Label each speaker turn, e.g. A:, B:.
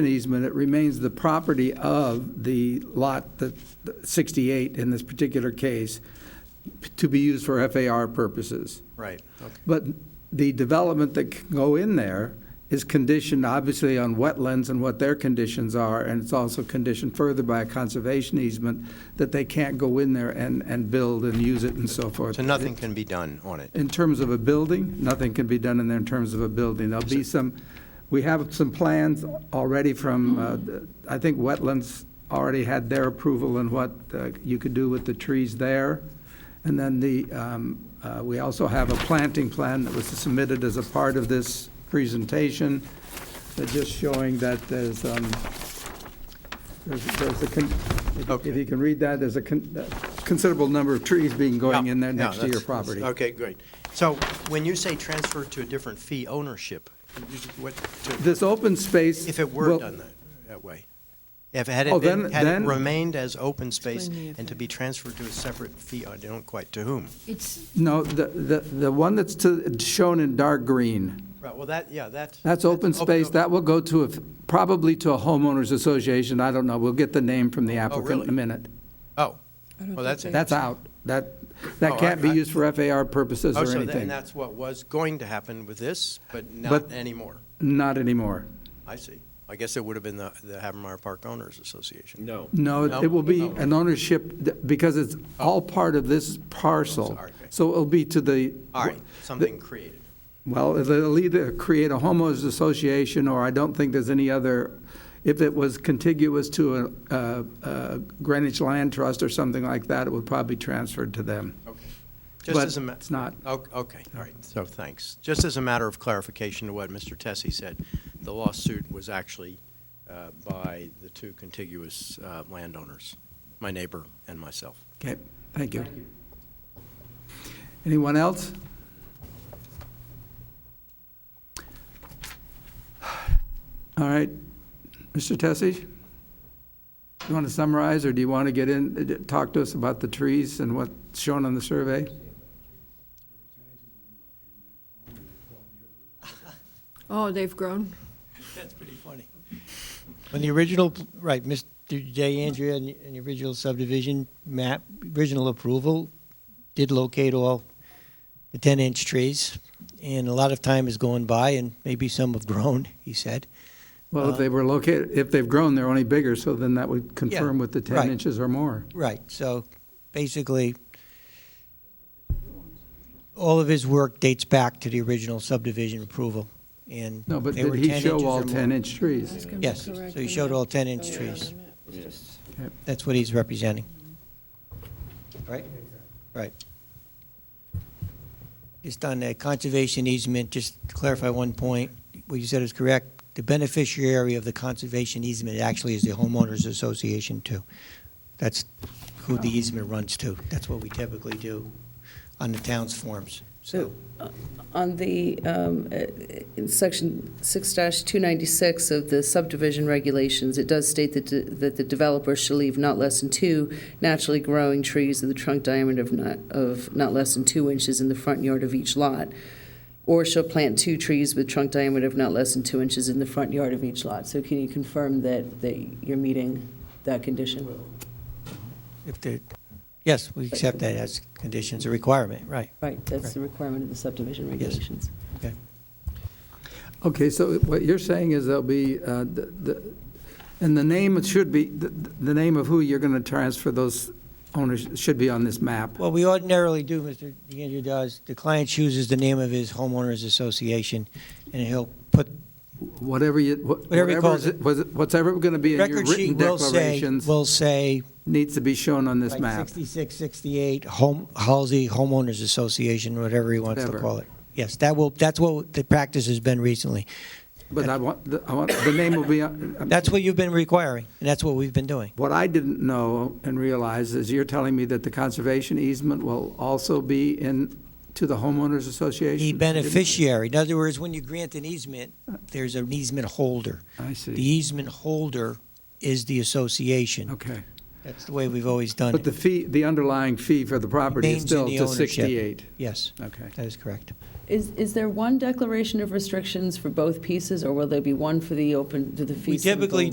A: easement, it remains the property of the lot, that 68 in this particular case, to be used for FAR purposes.
B: Right, okay.
A: But the development that can go in there is conditioned, obviously, on wetlands and what their conditions are, and it's also conditioned further by a conservation easement that they can't go in there and, and build and use it and so forth.
B: So nothing can be done on it?
A: In terms of a building, nothing can be done in there in terms of a building. There'll be some, we have some plans already from, uh, the- I think wetlands already had their approval and what uh, you could do with the trees there. And then the, um, uh, we also have a planting plan that was submitted as a part of this presentation, uh, just showing that there's, um, there's there's a, con- if- if
B: Okay.
A: you can read that, there's a con- considerable number of trees being going in there
B: No,
A: next to your
B: that's-
A: property.
B: Okay, great. So when you say transfer to a different fee ownership, you- what, to-
A: This open space.
B: if it were
A: will-
B: done that, that way? If it had it
A: Oh,
B: been,
A: then-
B: had it
A: then-
B: remained as open space
C: Explain the
B: and to
C: effect.
B: be transferred to a separate fee, I don't quite, to whom?
C: It's,
A: No, the, the, the one that's to, shown in dark green,
B: Right, well, that, yeah, that's.
A: that's open space,
B: oh,
A: that will go to a, probably to a homeowners association, I don't know, we'll get the name from the applicant in a
B: really?
A: minute.
B: Oh,
C: I don't
B: well, that's
C: think
B: it.
A: That's out, that,
B: Oh,
A: that can't be
B: I- I-
A: used for FAR purposes
B: Oh,
A: or
B: so that- and
A: anything,
B: that's what was going to happen with this, but not
A: But-
B: anymore.
A: not anymore.
B: I see. I guess it would have been the, the Havermeyer Park Owners Association.
D: No.
A: No,
B: No?
A: it will be
B: Oh.
A: an ownership, th- because it's all part of this parcel,
B: Sorry.
A: so it'll be to the.
B: All right, something created.
A: Well, they'll either create a homeowners association, or I don't think there's any other, if it was contiguous to a- a a Greenwich Land Trust or something like that, it would probably transfer to them.
B: Okay. Just
A: But
B: as a ma-
A: it's not.
B: O- Okay, all right, so thanks. Just as a matter of clarification to what Mr. Tessie said, the lawsuit was actually uh, by the two contiguous uh, landowners, my neighbor and myself.
A: Okay, thank you. Anyone else? All right, Mr. Tessie? You want to summarize, or do you want to get in, talk to us about the trees and what's shown on the survey?
C: oh, they've grown.
B: That's pretty funny.
E: On the original, right, Mr. J. Andrea, in the- in the original subdivision map, original approval, did locate all the 10-inch trees, and a lot of time has gone by, and maybe some have grown, he said.
A: Well,
E: Uh,
A: if they were located, if they've grown, they're only bigger, so then that would confirm with the 10
E: right.
A: inches or more.
E: Right, so basically, all of his work dates back to the original subdivision approval, and
A: No, but
E: they
A: did
E: were
A: he
E: 10
A: show
E: inches
A: all
E: or more.
A: 10-inch trees?
E: Yes, so he showed all 10-inch trees.
A: Okay.
E: That's what he's representing. Right? Right. Just on the conservation easement, just to clarify one point, what you said is correct. The beneficiary of the conservation easement actually is the homeowners association too. That's who the easement runs to. That's what we typically do on the town's forms, so.
F: On the, um, uh, in section 6-296 of the subdivision regulations, it does state that de- that the developer shall leave not less than two naturally growing trees of the trunk diameter of not, of not less than two inches in the front yard of each lot, or shall plant two trees with trunk diameter of not less than two inches in the front yard of each lot. So can you confirm that, that you're meeting that condition?
E: If the, yes, we accept that as conditions, a requirement, right.
F: Right, that's the requirement of the subdivision regulations.
A: Okay, so what you're saying is there'll be, uh, the- the- and the name, it should be, the- the name of who you're going to transfer those owners should be on this map.
E: Well, we ordinarily do, Mr. DeAndrea does, the client chooses the name of his homeowners association, and he'll put,
A: Whatever you, wh-
E: Whatever he calls
A: whatever's,
E: it.
A: was it- what's ever going to be in your
E: record sheet
A: written
E: will say,
A: declarations
E: will say,
A: needs to be shown on this
E: like,
A: map.
E: 66, 68, Home, Halsey Homeowners Association, whatever he wants to
A: Whatever.
E: call it. Yes, that will, that's what the practice has been recently.
A: But I want, the- I want, the name will be, uh, on-
E: That's what you've been requiring, and that's what we've been doing.
A: What I didn't know and realize is you're telling me that the conservation easement will also be in, to the homeowners association?
E: The beneficiary, in other words, when you grant an easement, there's an easement holder.
A: I
E: The
A: see,
E: easement holder is the association.
A: okay.
E: That's the way we've always done
A: But the
E: it.
A: fee, the underlying fee for the property is
E: Remains in
A: still
E: the
A: to
E: ownership.
A: 68?
E: Yes,
A: Okay.
E: that is correct.
F: Is, is there one declaration of restrictions for both pieces, or will there be one for the open, to the fee
E: We
F: simple?
E: typically